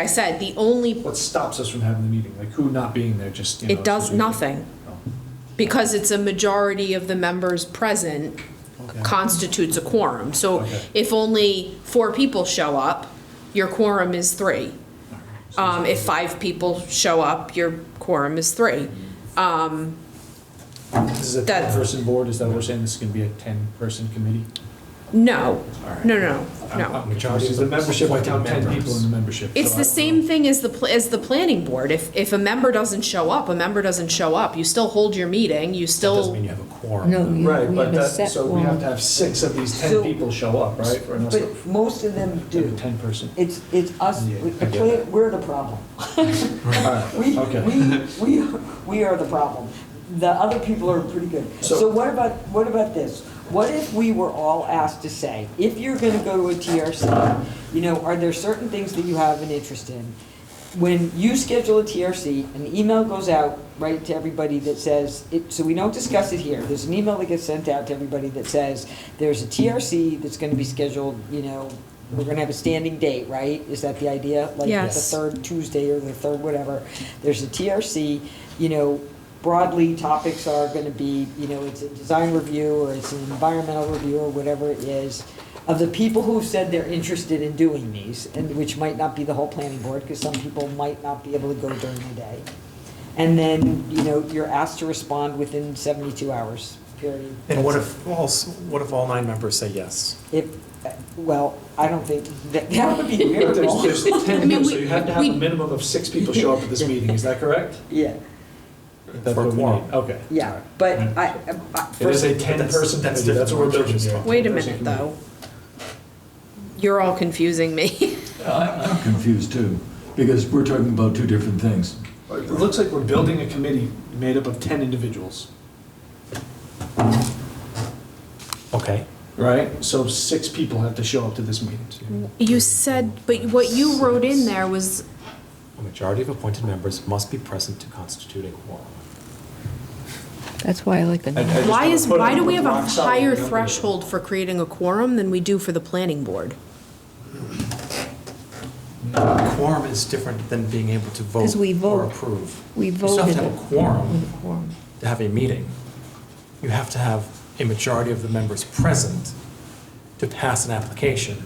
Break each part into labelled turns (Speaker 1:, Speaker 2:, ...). Speaker 1: I said, the only,
Speaker 2: What stops us from having the meeting? Like who not being there just, you know?
Speaker 1: it does
Speaker 2: so we-
Speaker 1: nothing,
Speaker 2: Oh,
Speaker 1: because it's a majority of the members present
Speaker 2: okay.
Speaker 1: constitutes a quorum. So
Speaker 2: Okay.
Speaker 1: if only four people show up, your quorum is three. Um, if five people show up, your quorum is three.
Speaker 2: This is a
Speaker 1: that-
Speaker 2: ten-person board, is that what we're saying? This is gonna be a ten-person committee?
Speaker 1: No,
Speaker 2: All right.
Speaker 1: no, no,
Speaker 2: I'm-
Speaker 1: no.
Speaker 2: I'm- Majority of the membership, I count ten people in the membership.
Speaker 1: It's
Speaker 2: so I
Speaker 1: the
Speaker 2: don't
Speaker 1: same
Speaker 2: know.
Speaker 1: thing as the, pl- as the planning board. If, if a member doesn't show up, a member doesn't show up. You still hold your meeting, you
Speaker 3: That doesn't
Speaker 1: still,
Speaker 3: mean you have a quorum.
Speaker 4: No, you
Speaker 2: Right,
Speaker 4: we
Speaker 2: but
Speaker 4: have a
Speaker 2: that,
Speaker 4: set
Speaker 2: so we have to
Speaker 4: one.
Speaker 2: have six of these ten
Speaker 5: So-
Speaker 2: people show up, right? Or unless
Speaker 5: But most of them do.
Speaker 2: Ten-person.
Speaker 5: It's, it's us,
Speaker 2: Yeah,
Speaker 5: we-
Speaker 2: I get that.
Speaker 5: we're the problem.
Speaker 2: All right,
Speaker 5: We,
Speaker 2: okay.
Speaker 5: we, we, we are the problem. The other people are pretty good.
Speaker 2: So-
Speaker 5: So what about, what about this? What if we were all asked to say, if you're gonna go to a TRC, you know, are there certain things that you have an interest in? When you schedule a TRC, an email goes out, right, to everybody that says, it, so we don't discuss it here. There's an email that gets sent out to everybody that says, there's a TRC that's gonna be scheduled, you know, we're gonna have a standing date, right? Is that the idea? Like the
Speaker 1: Yes.
Speaker 5: third third Tuesday or the third whatever, there's a TRC, you know, broadly topics are gonna be, you know, it's a design review or it's an environmental review or whatever it is. Of the people who said they're interested in doing these, and which might not be the whole planning board, because some people might not be able to go during the day. And then, you know, you're asked to respond within seventy-two hours, period.
Speaker 3: And what if, all s- what if all nine members say yes?
Speaker 5: If, uh, well, I don't think, that, that would be
Speaker 2: But
Speaker 5: weird.
Speaker 2: There's there's ten people, so
Speaker 1: we-
Speaker 2: you have to have a
Speaker 1: we-
Speaker 2: minimum of six people show up at this meeting, is that correct?
Speaker 5: Yeah,
Speaker 2: That's
Speaker 3: For
Speaker 2: what we
Speaker 3: quorum.
Speaker 2: need. Okay. all
Speaker 5: yeah,
Speaker 2: right.
Speaker 5: but I, I.
Speaker 2: It is a
Speaker 3: But that's-
Speaker 2: ten-person
Speaker 3: that's
Speaker 2: committee, that's what we're
Speaker 3: different.
Speaker 2: building here.
Speaker 1: wait a
Speaker 2: 10-person
Speaker 1: minute,
Speaker 2: committee.
Speaker 1: though. You're all confusing me.
Speaker 6: Uh, I'm confused too, because we're talking about two different things.
Speaker 2: It looks like we're building a committee made up of 10 individuals,
Speaker 3: Okay.
Speaker 2: right? So six people have to show up to this meeting.
Speaker 1: You said, but what you wrote in there was,
Speaker 3: A majority of appointed members must be present to constitute a quorum.
Speaker 4: That's why I like the number.
Speaker 1: why is,
Speaker 2: wanna put
Speaker 1: why do we have a
Speaker 2: rock solid
Speaker 1: higher
Speaker 2: number.
Speaker 1: threshold for creating a quorum than we do for the planning board?
Speaker 3: A quorum is different than being able to vote
Speaker 4: Because we
Speaker 3: or
Speaker 4: vote.
Speaker 3: approve.
Speaker 4: We
Speaker 3: You
Speaker 4: voted
Speaker 3: still have to
Speaker 4: it
Speaker 3: have a quorum
Speaker 4: with a quorum.
Speaker 3: to have a meeting. You have to have a majority of the members present to pass an application.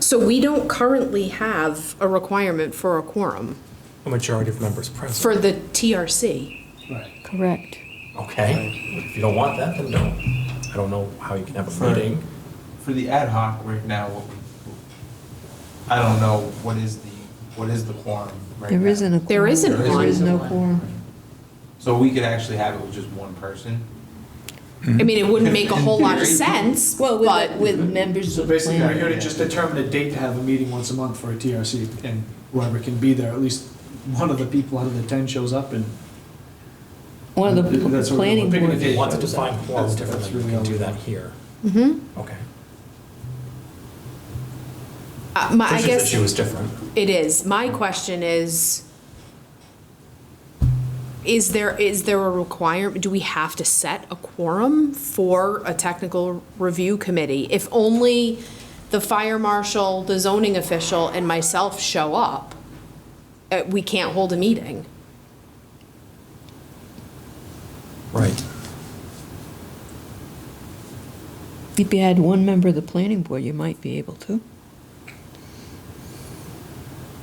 Speaker 1: So we don't currently have a requirement for a quorum
Speaker 3: A majority of members
Speaker 1: for
Speaker 3: present.
Speaker 1: the TRC.
Speaker 2: Right.
Speaker 4: Correct.
Speaker 3: Okay, if you don't want that, then don't. I don't know how you can have a
Speaker 7: For-
Speaker 3: meeting.
Speaker 7: For the ad hoc right now, what we- I don't know what is the, what is the quorum right now.
Speaker 4: There isn't a quorum.
Speaker 1: There isn't
Speaker 4: There
Speaker 1: one.
Speaker 4: is no quorum.
Speaker 7: So we could actually have it with just one person?
Speaker 1: I mean, it wouldn't make a whole lot of
Speaker 7: In theory.
Speaker 1: sense, but
Speaker 4: with members
Speaker 2: So basically, we're here to just determine a date to have a meeting once a month for a TRC, and whoever can be there, at least one of the people out of the 10 shows up, and
Speaker 4: One of the pl-
Speaker 2: That's what we're
Speaker 4: planning
Speaker 2: picking
Speaker 4: board,
Speaker 2: a
Speaker 3: If
Speaker 2: date.
Speaker 3: you want to define quorum
Speaker 2: That's- that's
Speaker 3: differently, we
Speaker 2: really
Speaker 3: can
Speaker 2: all
Speaker 3: do
Speaker 2: we
Speaker 3: that
Speaker 2: want.
Speaker 3: here.
Speaker 1: Mhm.
Speaker 3: Okay.
Speaker 1: Uh, my, I
Speaker 3: Trish's
Speaker 1: guess.
Speaker 3: issue is different.
Speaker 1: It is. My question is, is there, is there a requirement, do we have to set a quorum for a technical review committee? If only the fire marshal, the zoning official, and myself show up, uh, we can't hold a meeting.
Speaker 3: Right.
Speaker 4: if you had one member of the planning board, you might be able to.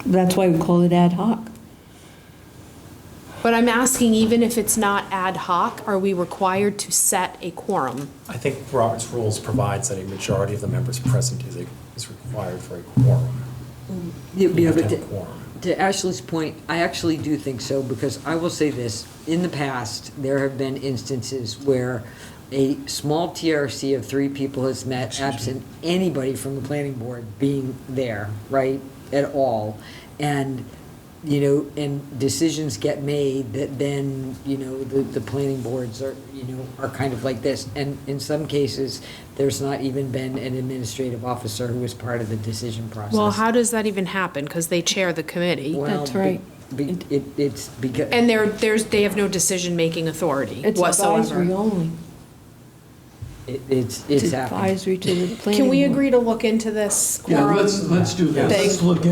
Speaker 4: That's why we call it ad hoc.
Speaker 1: But I'm asking, even if it's not ad hoc, are we required to set a quorum?
Speaker 3: I think Robert's rules provides that a majority of the members present is, a- is required for a quorum.
Speaker 5: You'd be
Speaker 3: You have
Speaker 5: able
Speaker 3: to have
Speaker 5: to-
Speaker 3: a quorum.
Speaker 5: To Ashley's point, I actually do think so, because I will say this, in the past, there have been instances where a small TRC of three people has met absent anybody from the planning board being there, right, at all. And, you know, and decisions get made that then, you know, the, the planning boards are, you know, are kind of like this. And in some cases, there's not even been an administrative officer who was part of the decision process.
Speaker 1: Well, how does that even happen? Because they chair the committee.
Speaker 5: Well,
Speaker 4: That's
Speaker 5: be-
Speaker 4: right.
Speaker 5: be- It, it's because.
Speaker 1: And they're, there's, they have no decision-making authority
Speaker 4: It's
Speaker 1: whatsoever.
Speaker 4: advisory only.
Speaker 5: It- It's,
Speaker 4: It's
Speaker 5: it's happening.
Speaker 4: advisory to the planning board.
Speaker 1: Can we agree to look into this
Speaker 6: Yeah,
Speaker 1: quorum?
Speaker 6: let's, let's do that.
Speaker 1: Thank-
Speaker 6: Let's look